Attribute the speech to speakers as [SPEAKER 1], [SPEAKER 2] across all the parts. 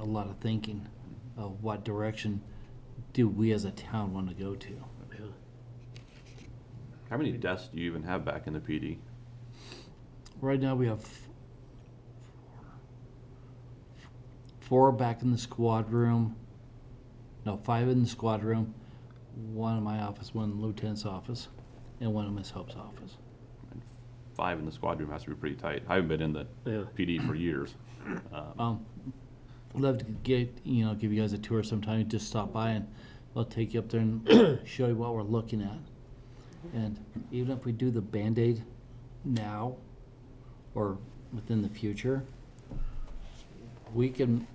[SPEAKER 1] a lot of thinking of what direction do we as a town want to go to.
[SPEAKER 2] How many desks do you even have back in the PD?
[SPEAKER 1] Right now, we have four back in the squad room. No, five in the squad room, one in my office, one in lieutenant's office, and one in Miss Hope's office.
[SPEAKER 2] Five in the squad room has to be pretty tight. I haven't been in the
[SPEAKER 3] Yeah.
[SPEAKER 2] PD for years. Um,
[SPEAKER 1] Um, I'd love to get, you know, give you guys a tour sometime, just stop by and I'll take you up there and show you what we're looking at. And even if we do the Band-Aid now or within the future, we can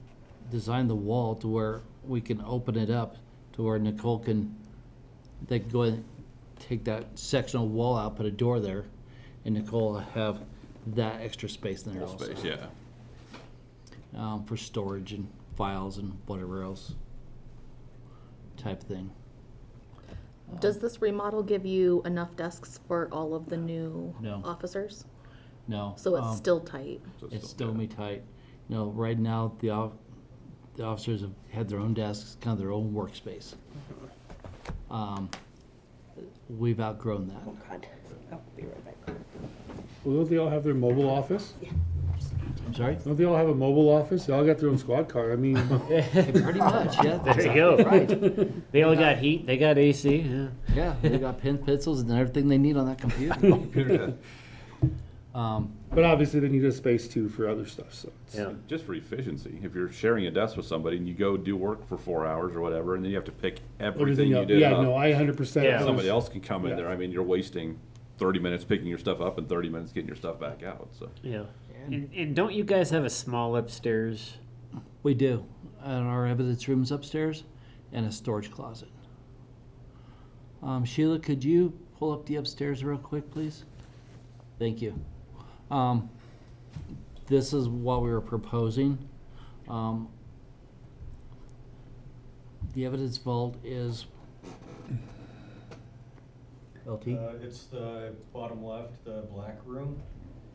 [SPEAKER 1] design the wall to where we can open it up to where Nicole can, they can go ahead and take that sectional wall out, put a door there, and Nicole will have that extra space in there
[SPEAKER 2] Wall
[SPEAKER 1] also
[SPEAKER 2] space, yeah.
[SPEAKER 1] um, for storage and files and whatever else type thing. Um,
[SPEAKER 4] Does this remodel give you enough desks for all of the new
[SPEAKER 1] No.
[SPEAKER 4] officers?
[SPEAKER 1] No,
[SPEAKER 4] So it's
[SPEAKER 1] um,
[SPEAKER 4] still tight.
[SPEAKER 2] So
[SPEAKER 1] it's still me tight. You know, right now the off, the officers have had their own desks, kind of their own workspace. Um, we've outgrown that.
[SPEAKER 5] Oh, God. I'll be right back.
[SPEAKER 3] Well, don't they all have their mobile office?
[SPEAKER 1] I'm sorry.
[SPEAKER 3] Don't they all have a mobile office? They all got their own squad car. I mean,
[SPEAKER 1] Pretty much, yeah.
[SPEAKER 6] There you
[SPEAKER 1] exactly
[SPEAKER 6] go.
[SPEAKER 1] Right.
[SPEAKER 6] They all got heat, they got AC, yeah.
[SPEAKER 1] Yeah, they got pen, pencils, and everything they need on that computer. um,
[SPEAKER 3] but obviously they need a space too for other stuff. So it's,
[SPEAKER 6] yeah.
[SPEAKER 2] Just for efficiency, if you're sharing a desk with somebody and you go do work for four hours or whatever, and then you have to pick everything
[SPEAKER 3] everything
[SPEAKER 2] you
[SPEAKER 3] else.
[SPEAKER 2] did
[SPEAKER 3] Yeah,
[SPEAKER 2] up.
[SPEAKER 3] no, I 100%.
[SPEAKER 6] Yeah.
[SPEAKER 2] Somebody else can come in
[SPEAKER 3] Yeah.
[SPEAKER 2] there. I mean, you're wasting thirty minutes picking your stuff up and thirty minutes getting your stuff back out, so.
[SPEAKER 6] Yeah. And, and don't you guys have a small upstairs?
[SPEAKER 1] We do. And our evidence room's upstairs and a storage closet. Um, Sheila, could you pull up the upstairs real quick, please? Thank you. Um, this is what we were proposing. Um, the evidence vault is. LT?
[SPEAKER 7] Uh, It's the bottom left, the black room.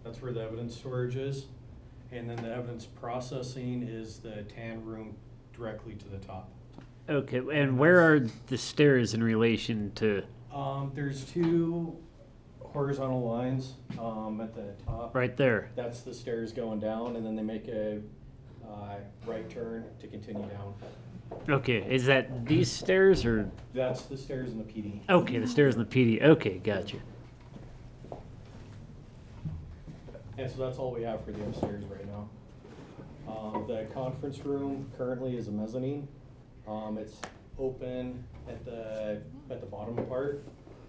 [SPEAKER 7] That's where the evidence storage is. And then the evidence processing is the tan room directly to the top.
[SPEAKER 6] Okay, and where are the stairs in relation to,
[SPEAKER 7] Um, There's two horizontal lines um, at the top.
[SPEAKER 6] right there?
[SPEAKER 7] That's the stairs going down, and then they make a uh, right turn to continue down.
[SPEAKER 6] Okay, is that these stairs or,
[SPEAKER 7] That's the stairs in the PD.
[SPEAKER 6] okay, the stairs in the PD, okay, gotcha.
[SPEAKER 7] And so that's all we have for the upstairs right now. Um, the conference room currently is a mezzanine. Um, it's open at the, at the bottom part.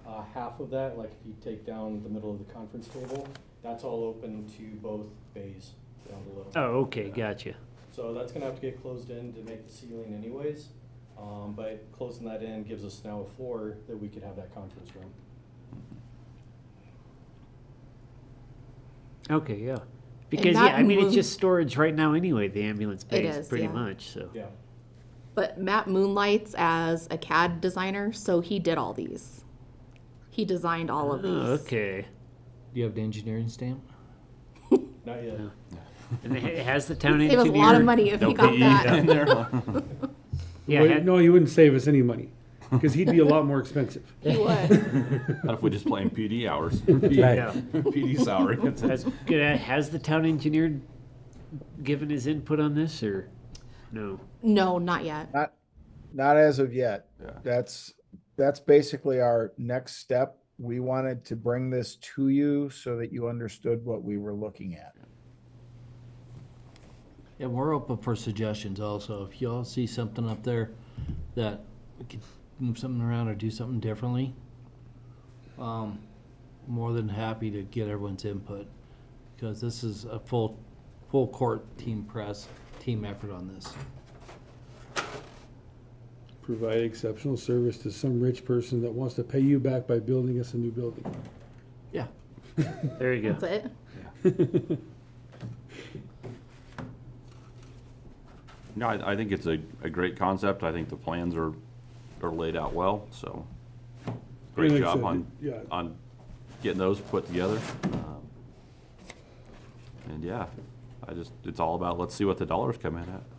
[SPEAKER 7] Uh, half of that, like if you take down the middle of the conference table, that's all open to both bays down below.
[SPEAKER 6] Oh, okay, gotcha.
[SPEAKER 7] So that's gonna have to get closed in to make the ceiling anyways. Um, but closing that in gives us now a floor that we could have that conference room.
[SPEAKER 6] Okay, yeah. Because, yeah,
[SPEAKER 4] that
[SPEAKER 6] I mean, it's
[SPEAKER 4] room-
[SPEAKER 6] just storage right now anyway, the ambulance base,
[SPEAKER 4] is,
[SPEAKER 6] pretty
[SPEAKER 4] yeah.
[SPEAKER 6] much, so.
[SPEAKER 7] Yeah.
[SPEAKER 4] But Matt moonlights as a CAD designer, so he did all these. He designed all
[SPEAKER 1] Ah,
[SPEAKER 4] of
[SPEAKER 6] Oh,
[SPEAKER 4] these.
[SPEAKER 6] Okay.
[SPEAKER 1] Do you have the engineering stamp?
[SPEAKER 7] Not yet.
[SPEAKER 6] And it has the town
[SPEAKER 4] Save
[SPEAKER 6] engineer?
[SPEAKER 4] us a lot of money if he got that.
[SPEAKER 6] Yeah,
[SPEAKER 3] Wait,
[SPEAKER 6] had-
[SPEAKER 3] no, he wouldn't save us any money because he'd be a lot more expensive.
[SPEAKER 4] He would.
[SPEAKER 2] Not if we just playing PD hours.
[SPEAKER 6] Yeah.
[SPEAKER 2] PD salary.
[SPEAKER 6] Has, could I- has the town engineer given his input on this or no?
[SPEAKER 4] No, not yet.
[SPEAKER 8] Not, not as of yet.
[SPEAKER 2] Yeah.
[SPEAKER 8] That's, that's basically our next step. We wanted to bring this to you so that you understood what we were looking at.
[SPEAKER 1] And we're open for suggestions also. If y'all see something up there that we could move something around or do something differently, um, more than happy to get everyone's input. Because this is a full, full court team press, team effort on this.
[SPEAKER 3] Provide exceptional service to some rich person that wants to pay you back by building us a new building.
[SPEAKER 1] Yeah.
[SPEAKER 6] There you go.
[SPEAKER 4] That's it.
[SPEAKER 2] No, I, I think it's a, a great concept. I think the plans are, are laid out well, so. Great
[SPEAKER 3] like I
[SPEAKER 2] job
[SPEAKER 3] said,
[SPEAKER 2] on,
[SPEAKER 3] yeah.
[SPEAKER 2] on getting those put together. Um, And yeah, I just, it's all about, let's see what the dollars come in at.